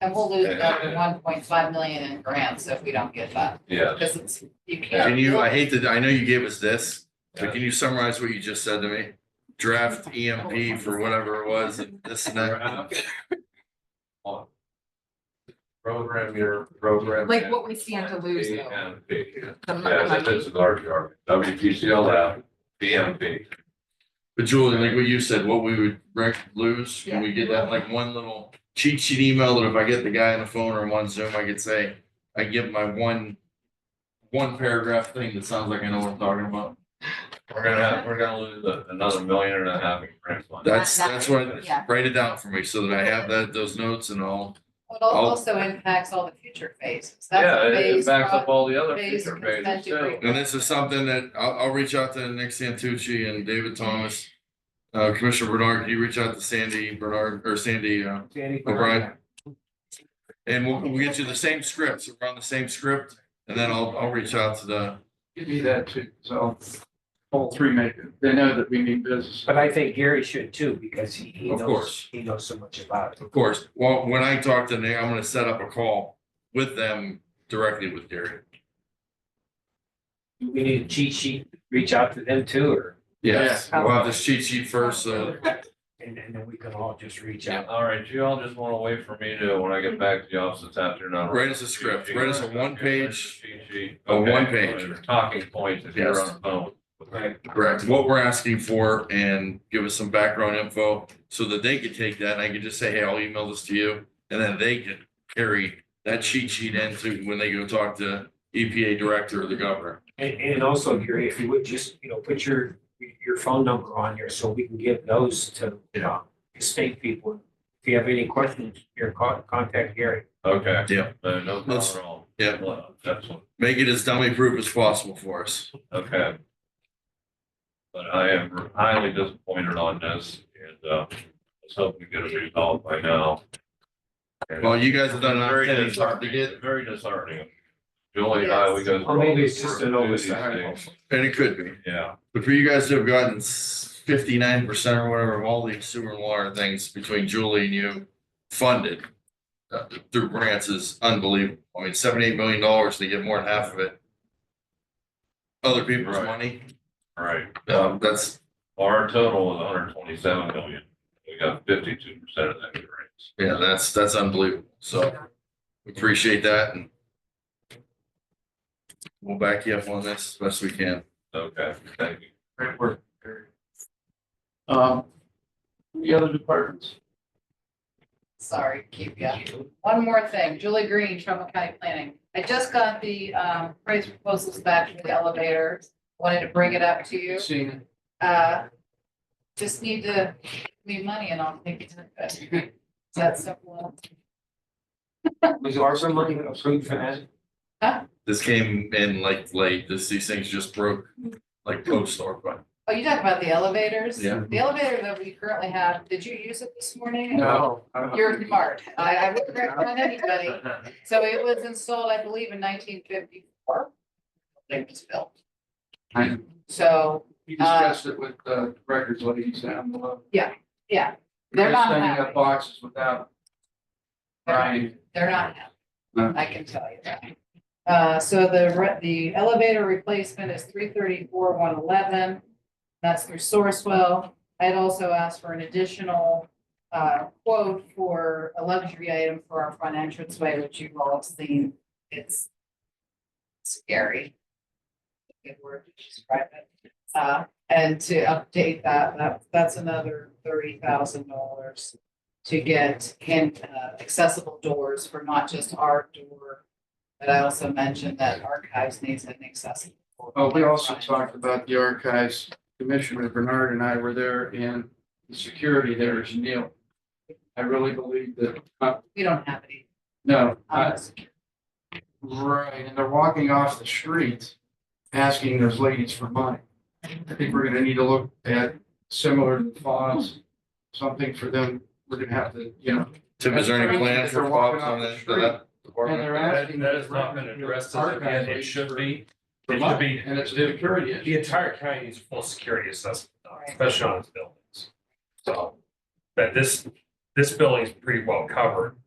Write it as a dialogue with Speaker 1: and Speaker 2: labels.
Speaker 1: And we'll lose another one point five million in grants if we don't get that,
Speaker 2: Yeah,
Speaker 1: because it's, you can't.
Speaker 3: Can you, I hate to, I know you gave us this, but can you summarize what you just said to me? Draft EMP for whatever it was, and this and that.
Speaker 2: program your program.
Speaker 4: Like what we stand to lose though.
Speaker 2: and B.
Speaker 4: the mo-
Speaker 2: Yeah,
Speaker 4: money.
Speaker 2: that is a large yard. WPCLF, BMP.
Speaker 3: But Julie, like what you said, what we would rec- lose, can we get that like one little cheat sheet email that if I get the guy on the phone or I'm on Zoom, I could say, I give my one. One paragraph thing that sounds like I know what I'm talking about.
Speaker 2: We're gonna have, we're gonna lose a- another million and a half in grant money.
Speaker 3: That's, that's what,
Speaker 4: Yeah.
Speaker 3: write it down for me so that I have that, those notes and all.
Speaker 1: It
Speaker 3: Oh.
Speaker 1: also impacts all the future phases. That's
Speaker 2: Yeah, it- it
Speaker 1: phase
Speaker 2: backs
Speaker 1: one.
Speaker 2: up all the other
Speaker 1: phase
Speaker 2: future
Speaker 1: consent
Speaker 2: phases too.
Speaker 1: decree.
Speaker 3: And this is something that I'll, I'll reach out to Nick Santucci and David Thomas. Uh, Commissioner Bernard, you reach out to Sandy Bernard or Sandy, uh, O'Brien. And we'll, we'll get you the same scripts, we're on the same script, and then I'll, I'll reach out to the,
Speaker 5: Give me that too, so all three make it. They know that we mean business.
Speaker 6: But I think Gary should too, because he, he
Speaker 3: Of
Speaker 6: knows,
Speaker 3: course.
Speaker 6: he knows so much about it.
Speaker 3: of course. Well, when I talk to Nick, I'm gonna set up a call with them directly with Gary.
Speaker 6: Do We need a cheat sheet, reach out to them too, or,
Speaker 3: Yes, we'll have this cheat sheet first, so.
Speaker 6: and, and then we can all just reach
Speaker 2: Yeah,
Speaker 6: out.
Speaker 2: all right, you all just wanna wait for me to, when I get back to the office this afternoon.
Speaker 3: Write us a script, write us a one page, a
Speaker 2: A
Speaker 3: one page.
Speaker 2: Talking points if you're
Speaker 3: Yes.
Speaker 2: on the phone.
Speaker 6: Right.
Speaker 3: correct, what we're asking for and give us some background info. So that they could take that and I could just say, hey, I'll email this to you, and then they could carry that cheat sheet into when they go talk to EPA director or the governor.
Speaker 6: And, and also Gary, if you would just, you know, put your, your phone number on here so we can give those to, you know, state people. If you have any questions, your con- contact Gary.
Speaker 2: Okay.
Speaker 3: Yeah.
Speaker 2: Uh, No problem
Speaker 3: Let's-
Speaker 2: at all.
Speaker 3: yeah.
Speaker 2: Well, Excellent,
Speaker 3: Make it as dummy proof as possible for us.
Speaker 2: okay. But I am highly disappointed on this and, uh, let's hope we get it resolved by now. And
Speaker 3: Well, you guys have done an
Speaker 2: Very
Speaker 3: opportunity to
Speaker 2: disheartening,
Speaker 3: get,
Speaker 2: very disheartening. Julie and I, we go. through
Speaker 6: Or maybe
Speaker 2: all
Speaker 6: it's
Speaker 2: these
Speaker 6: just an
Speaker 2: work, do these
Speaker 6: oversight.
Speaker 2: things.
Speaker 3: and it could be,
Speaker 2: Yeah,
Speaker 3: but for you guys to have gotten fifty-nine percent or whatever of all these sewer and water things between Julie and you funded uh, through grants is unbelievable. I mean, seventy-eight million dollars, they get more than half of it. Other people's
Speaker 2: Right.
Speaker 3: money,
Speaker 2: all right.
Speaker 3: um, that's,
Speaker 2: Our total was hundred twenty-seven million. We got fifty-two percent of that grants.
Speaker 3: yeah, that's, that's unbelievable. So we appreciate that and we'll back you up on this as best we can.
Speaker 2: Okay, thank you.
Speaker 5: Great work. Gary. Um, the other departments?
Speaker 1: Sorry, keep you. One more thing, Julie Green, Trumbull County Planning. I just got the um price proposals back from the elevator. Wanted to bring it up to you.
Speaker 5: Seeing it.
Speaker 1: Uh, just need to give me money and I'll take it to the best. That's simple.
Speaker 6: Was there some money approved for that?
Speaker 3: This came in like late, this, these things just broke, like post or, but
Speaker 1: Oh, you talk about the elevators?
Speaker 3: Yeah.
Speaker 1: The elevator that we currently have, did you use it this morning?
Speaker 5: No. I don't
Speaker 1: You're
Speaker 5: think-
Speaker 1: smart. I, I wouldn't recommend anybody. So it was installed, I believe, in nineteen fifty-four. It was built.
Speaker 5: I-
Speaker 1: So,
Speaker 5: You discussed it with uh, the records ladies down below.
Speaker 1: yeah, They're not
Speaker 5: They're Sending
Speaker 1: happy.
Speaker 5: up boxes without. Right.
Speaker 1: they're not happy.
Speaker 5: No.
Speaker 1: I can tell you that. Uh, so the, re- the elevator replacement is three thirty-four, one eleven. That's through Sourcewell. I had also asked for an additional, uh, quote for a luxury item for our front entranceway, which you've all seen. It's scary. Good word to describe it. Uh, and to update that, that, that's another thirty thousand dollars to get hand, uh, accessible doors for not just our door, but I also mentioned that archives needs an accessible. door.
Speaker 5: Oh, we also talked about the archives. Commissioner Bernard and I were there and the security there is nil. I really believe that, uh,
Speaker 1: We don't have any.
Speaker 5: no, I,
Speaker 1: uh, security.
Speaker 5: Right, and they're walking off the street asking those ladies for money. I think we're gonna need to look at similar files, something for them, we're gonna have to, you know.
Speaker 3: Tim, is there any
Speaker 5: That's
Speaker 3: plans
Speaker 5: crazy that
Speaker 3: for
Speaker 5: they're walking
Speaker 3: Bob's on
Speaker 5: off the
Speaker 3: that? for
Speaker 5: street.
Speaker 3: that
Speaker 5: And
Speaker 3: department?
Speaker 5: they're
Speaker 2: That
Speaker 5: asking.
Speaker 2: that has not been addressed as of yet. It should be.
Speaker 5: For
Speaker 2: It should
Speaker 5: money,
Speaker 2: be.
Speaker 5: and it's a security issue.
Speaker 6: The entire county is full security assessment,
Speaker 1: now,
Speaker 6: especially on its buildings. So, that this, this building is pretty well covered